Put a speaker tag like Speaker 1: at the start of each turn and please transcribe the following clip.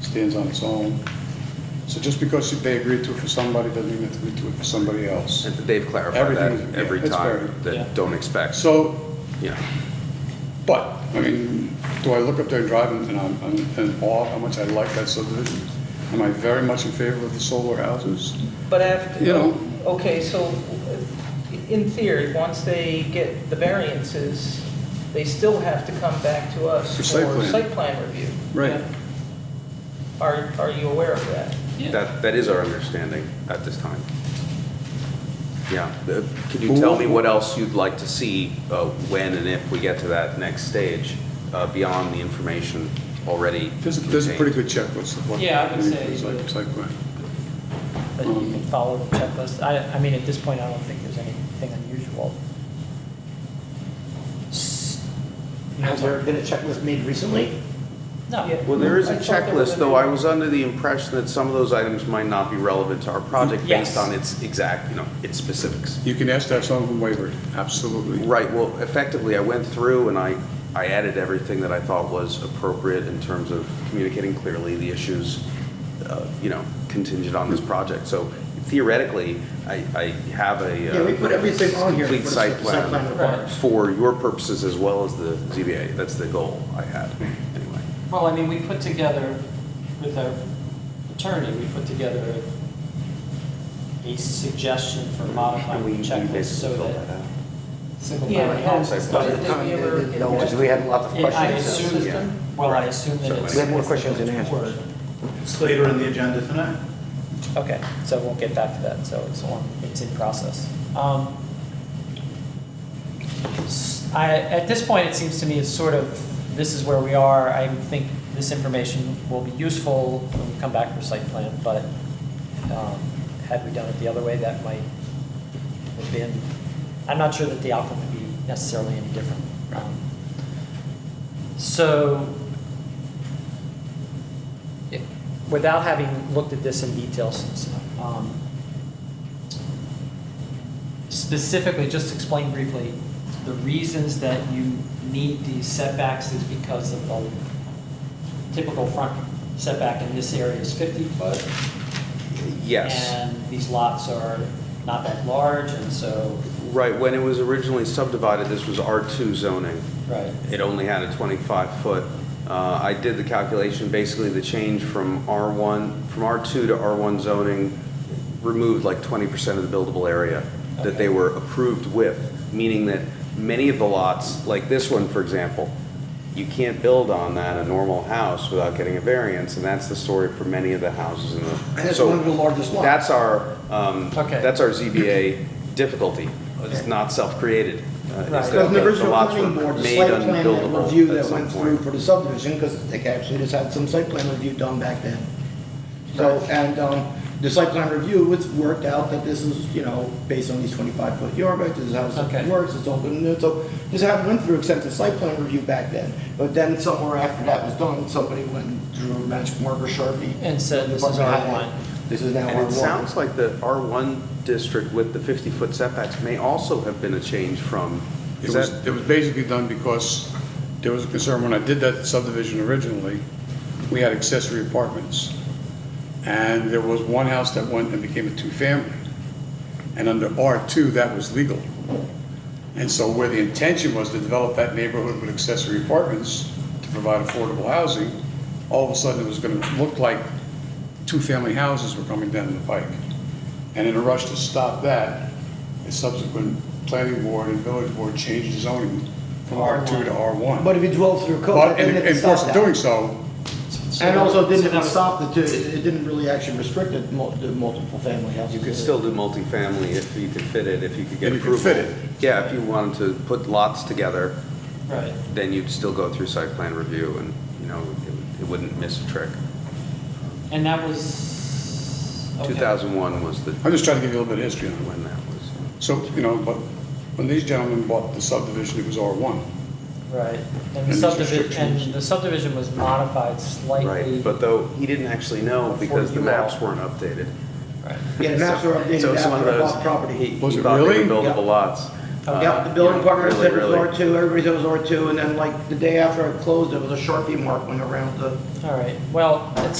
Speaker 1: stands on its own. So just because they agreed to it for somebody doesn't mean they agreed to it for somebody else.
Speaker 2: They've clarified
Speaker 1: Everything is-
Speaker 2: that
Speaker 1: yeah,
Speaker 2: every
Speaker 1: it's
Speaker 2: time,
Speaker 3: Yeah.
Speaker 2: that don't expect,
Speaker 1: So
Speaker 2: yeah.
Speaker 1: But, I mean, do I look up there and drive and and I'm I'm in awe how much I like that subdivision? Am I very much in favor of the solar houses?
Speaker 4: But after,
Speaker 1: You know.
Speaker 4: okay, so in theory, once they get the variances, they still have to come back to us
Speaker 1: For
Speaker 4: for
Speaker 1: site plan.
Speaker 4: site plan review.
Speaker 1: Right.
Speaker 4: Are, are you aware of that?
Speaker 2: That, that is our understanding at this time. Yeah, the- can you
Speaker 1: Who-
Speaker 2: tell me what else you'd like to see uh, when and if we get to that next stage, uh, beyond the information already
Speaker 1: There's, there's a pretty
Speaker 2: contained?
Speaker 1: good checklist of what.
Speaker 3: Yeah, I would say
Speaker 1: it's like-
Speaker 3: that-
Speaker 1: it's like, right.
Speaker 3: But you can follow the checklist. I, I mean, at this point, I don't think there's anything unusual.
Speaker 5: Has there been a checklist made recently?
Speaker 3: No.
Speaker 2: Well, there is
Speaker 4: I
Speaker 2: a
Speaker 4: thought there was
Speaker 2: checklist, though
Speaker 4: a-
Speaker 2: I was under the impression that some of those items might not be relevant to our project based
Speaker 3: Yes.
Speaker 2: on its exact, you know, its specifics.
Speaker 1: You can ask that someone wavered, absolutely.
Speaker 2: Right, well, effectively, I went through and I, I added everything that I thought was appropriate in terms of communicating clearly the issues, uh, you know, contingent on this project. So theoretically, I, I have a. uh,
Speaker 5: Yeah, we put everything on here.
Speaker 2: Complete
Speaker 5: What
Speaker 2: site
Speaker 5: the
Speaker 2: plan
Speaker 5: requires.
Speaker 2: for your purposes as well as the ZBA. That's the goal I had, anyway.
Speaker 3: Well, I mean, we put together, with our attorney, we put together a suggestion for modifying
Speaker 2: We- we
Speaker 3: the checklist
Speaker 2: basically
Speaker 3: so
Speaker 2: filled
Speaker 3: that
Speaker 2: out.
Speaker 3: single
Speaker 4: Yeah,
Speaker 3: family
Speaker 4: it
Speaker 3: homes.
Speaker 4: has.
Speaker 2: By
Speaker 4: Did
Speaker 2: the
Speaker 4: they
Speaker 5: time
Speaker 4: ever
Speaker 5: they did
Speaker 4: get
Speaker 5: know,
Speaker 4: back
Speaker 5: because we had lots of
Speaker 4: to the
Speaker 3: I
Speaker 5: questions.
Speaker 3: assume,
Speaker 4: system?
Speaker 3: that- well, I assume that
Speaker 2: So
Speaker 3: it's.
Speaker 5: We have more questions than answers.
Speaker 6: It's later in the agenda tonight.
Speaker 3: Okay, so we'll get back to that, so it's on, it's in process. Um, s- I, at this point, it seems to me it's sort of, this is where we are, I think this information will be useful when we come back for site plan, but, um, had we done it the other way, that might have been, I'm not sure that the outcome would be necessarily any different. Um, So, it- without having looked at this in detail since, um, specifically, just explain briefly, the reasons that you need these setbacks is because of the typical front setback in this area is 50 foot.
Speaker 2: Yes.
Speaker 3: And these lots are not that large, and so,
Speaker 2: Right, when it was originally subdivided, this was R2 zoning.
Speaker 3: right,
Speaker 2: It only had a 25-foot. I did the calculation, basically the change from R1, from R2 to R1 zoning removed like 20% of the buildable area that they
Speaker 3: Okay.
Speaker 2: were approved with, meaning that many of the lots, like this one, for example, you can't build on that, a normal house, without getting a variance, and that's the story for many of the houses in the.
Speaker 5: And it's
Speaker 2: So
Speaker 5: one of the largest lots.
Speaker 2: That's our, um,
Speaker 5: Mm.
Speaker 3: Okay.
Speaker 2: that's our ZBA difficulty. It's
Speaker 5: Okay.
Speaker 2: not self-created. uh, is
Speaker 3: Right.
Speaker 2: that
Speaker 5: Because
Speaker 2: the-
Speaker 5: the
Speaker 2: the
Speaker 5: original
Speaker 2: lots
Speaker 5: planning
Speaker 2: were
Speaker 5: board, the
Speaker 2: made
Speaker 5: site plan
Speaker 2: unbuildable
Speaker 5: and review
Speaker 2: at
Speaker 5: that
Speaker 2: some
Speaker 5: went
Speaker 2: point.
Speaker 5: through for the subdivision, because they actually just had some site plan review done back then. So, and, um, the site plan review, it's worked out that this is, you know, based on these twenty-five foot yards, this is how
Speaker 3: Okay.
Speaker 5: it works, it's all good and new. So, this had, went through extensive site plan review back then, but then somewhere after that was done, somebody went and drew a benchmark or Sharpie.
Speaker 3: And said, "This is
Speaker 5: Department
Speaker 3: R1."
Speaker 5: had it. This is now
Speaker 2: And
Speaker 5: R one.
Speaker 2: it sounds like the R1 district with the 50-foot setbacks may also have been a change from,
Speaker 1: It
Speaker 2: is
Speaker 1: was,
Speaker 2: that?
Speaker 1: it was basically done because there was a concern, when I did that subdivision originally, we had accessory apartments. And there was one house that went and became a two-family. And under R2, that was legal. And so where the intention was to develop that neighborhood with accessory apartments to provide affordable housing, all of a sudden it was gonna look like two-family houses were coming down the pike. And in a rush to stop that, a subsequent planning board and village board changed the zoning from R2 to R1.
Speaker 5: But if you dwell through code,
Speaker 1: But in
Speaker 5: then
Speaker 1: in
Speaker 5: it's
Speaker 1: the
Speaker 5: not
Speaker 1: course
Speaker 5: that.
Speaker 1: of doing so,
Speaker 5: And also, it
Speaker 3: So
Speaker 5: didn't
Speaker 3: that
Speaker 5: even
Speaker 3: was-
Speaker 5: stop the two, it it didn't really actually restrict the mul- the multiple family houses.
Speaker 2: You could still do multifamily if you could fit it, if you could get
Speaker 1: If you could
Speaker 2: approval.
Speaker 1: fit
Speaker 2: Yeah, if you wanted to put lots together,
Speaker 3: right.
Speaker 2: then you'd still go through site plan review and, you know, it- it wouldn't miss a trick.
Speaker 3: And that was, okay.
Speaker 2: 2001 was the,
Speaker 1: I'm just trying to give you a little bit of history on it.
Speaker 2: when that was.
Speaker 1: So, you know, but when these gentlemen bought the subdivision, it was R1.
Speaker 3: Right, and
Speaker 1: And
Speaker 3: the
Speaker 1: these
Speaker 3: subdivision,
Speaker 1: restrictions.
Speaker 3: and the subdivision was modified slightly.
Speaker 2: Right, but though, he didn't actually know
Speaker 3: Before
Speaker 2: because the
Speaker 3: you
Speaker 2: maps
Speaker 3: all-
Speaker 2: weren't updated.
Speaker 3: Right.
Speaker 5: Yeah, the maps
Speaker 2: So-
Speaker 5: were updated
Speaker 2: so it's one of
Speaker 5: after I
Speaker 2: those-
Speaker 5: bought property.
Speaker 2: He
Speaker 1: Was
Speaker 2: he
Speaker 1: it
Speaker 2: thought they
Speaker 1: really?
Speaker 2: were
Speaker 5: Yep.
Speaker 2: buildable lots. Uh,
Speaker 5: Yep, the building
Speaker 2: you know,
Speaker 5: department
Speaker 2: really,
Speaker 5: said it was
Speaker 2: really.
Speaker 5: R2, everybody said it was R2, and then like the day after I closed, it was a Sharpie mark went around the
Speaker 3: All right, well, it's